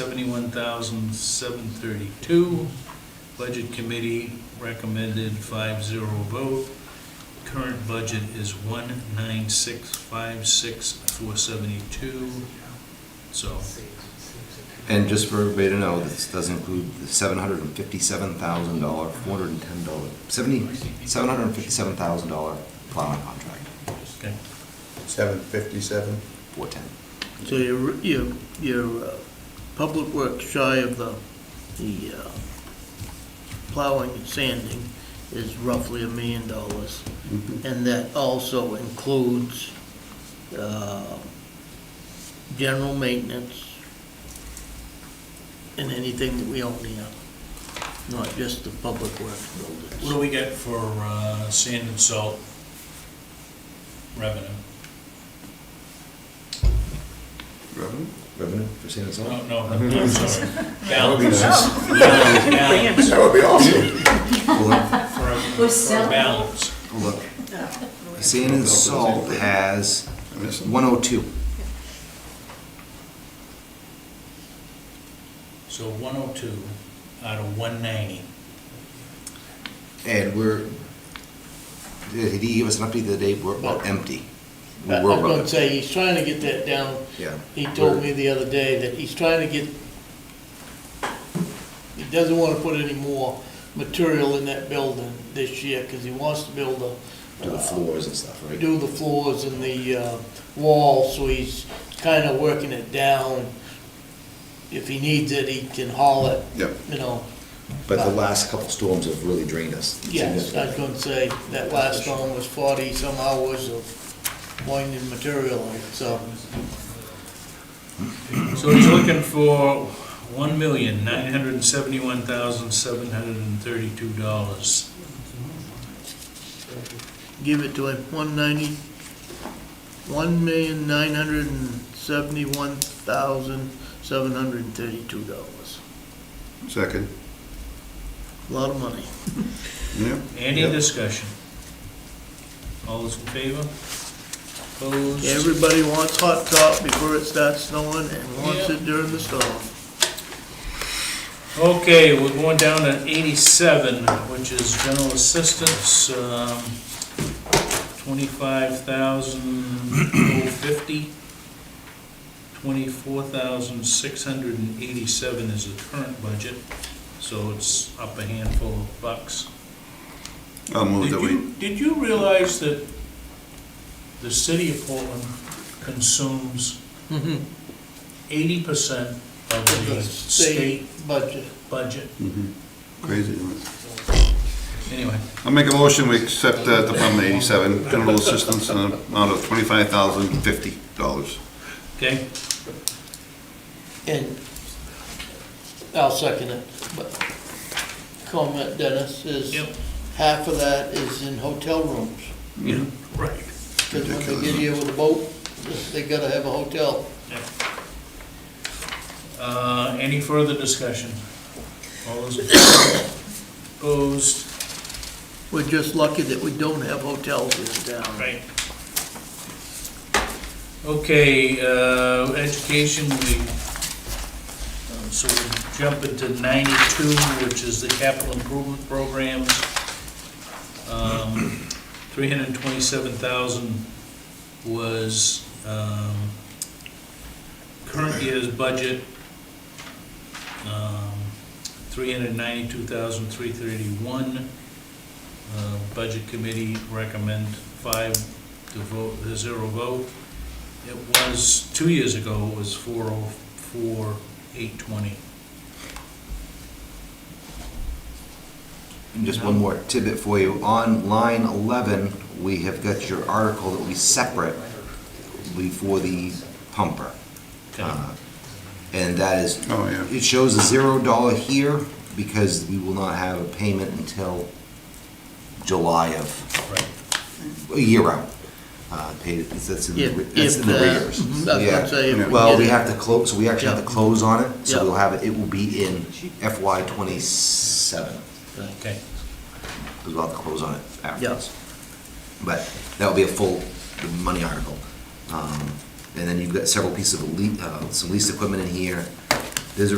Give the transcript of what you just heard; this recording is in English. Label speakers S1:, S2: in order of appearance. S1: seventy-one thousand, seven thirty-two. Budget committee recommended five zero vote. Current budget is one nine six five six four seventy-two, so,
S2: And just for everybody to know, this does include the seven hundred and fifty-seven thousand dollar, four hundred and ten dollar, seventy, seven hundred and fifty-seven thousand dollar plowing contract,
S1: okay.
S3: Seven fifty-seven?
S2: four ten.
S4: So you're, you're, you're uh, public works shy of the, the uh, plowing and sanding is roughly a million dollars.
S3: Mm-hmm.
S4: And that also includes uh, general maintenance and anything that we own here, not just the public works
S1: What do
S4: buildings.
S1: we get for uh, sand and salt revenue?
S2: Revenue? Revenue for sand and
S1: No,
S2: salt?
S1: no, I'm sorry.
S3: That would be
S1: Balance,
S3: nice.
S1: balance,
S3: That would be awesome.
S2: Well, look-
S1: for a-
S5: Oh. We're
S1: for a
S5: selling.
S1: balance.
S2: well, look, sand and salt has one oh two.
S1: So one oh two out of one ninety.
S2: And we're, did he give us an update the day, we're about empty. We
S4: I-
S2: were
S4: I'm
S2: about
S4: gonna
S2: empty.
S4: say, he's trying to get that down
S2: Yeah.
S4: He told me the other day that he's trying to get, he doesn't want to put any more material in that building this year, because he wants to build a. uh,
S2: Do the floors and stuff, right?
S4: Do the floors and the uh, walls, so he's kind of working it down. If he needs it, he can haul it,
S3: Yep.
S4: you know.
S2: But the last couple storms have really drained us.
S4: uh, Yes, I was gonna say, that last one was forty some hours of winding material, in, so.
S1: So he's looking for one million, nine hundred and seventy-one thousand, seven hundred and thirty-two dollars.
S4: give it to him, one ninety, one million nine hundred and seventy-one thousand seven hundred and thirty-two dollars.
S3: Second.
S4: A Lot of money.
S3: Yeah.
S1: Any
S2: Yep.
S1: discussion? All those in favor? Opposed?
S4: Everybody wants hot top before it starts snowing and wants
S1: Yeah.
S4: it during the storm.
S1: Okay, we're going down to eighty-seven, which is general assistance, um, twenty-five thousand fifty. Twenty-four thousand six hundred and eighty-seven is the current budget, so it's up a handful of bucks.
S3: I'll move
S1: Did
S3: that we,
S1: you, did you realize that the city of Portland consumes eighty percent of the
S4: Mm-hmm. The
S1: state
S4: state budget.
S1: budget?
S3: Mm-hmm. crazy. isn't it?
S1: Anyway.
S3: I'll make a motion, we accept uh, Department eighty-seven, general assistance in an amount of twenty-five thousand fifty dollars.
S1: Okay,
S4: And I'll second it, but comment Dennis is,
S1: Yep.
S4: half of that is in hotel rooms.
S1: yeah, right.
S4: Because when
S3: Ridiculous,
S4: they get
S3: huh?
S4: here with a boat, they gotta have a hotel.
S1: Uh, Any further discussion? All those in favor? opposed?
S4: We're just lucky that we don't have hotels in town.
S1: Right. Okay, uh, education, we, uh, so we jump into ninety-two, which is the capital improvement programs. Um, Three hundred and twenty-seven thousand was um, current year's budget. Um, Three hundred and ninety-two thousand, three thirty-one. Uh, Budget Committee recommend five to vote, to zero vote. It was, two years ago, it was four oh four, eight twenty.
S2: And just one more tidbit for you. On line 11, we have got your article that we separate before the pumper. Uh, And that is,
S3: Oh, yeah.
S2: it shows a zero dollar here because we will not have a payment until July of,
S1: Right.
S2: a year out. Uh, paid- That's in the
S4: If,
S2: re- that's
S4: if,
S2: in the
S4: uh,
S2: rears.
S4: mhm, that's what
S2: Yeah.
S4: I'm saying. if
S2: Well,
S4: get
S2: we
S4: it-
S2: have to close, so we actually have to
S4: Yeah.
S2: close on it, so
S4: Yeah.
S2: we'll have it, it will be in FY twenty-seven,
S1: Okay,
S2: because we'll have to close on it afterwards.
S4: Yeah.
S2: But that'll be a full money article. Um, And then you've got several pieces of, lea- uh, some leased equipment in here, There's a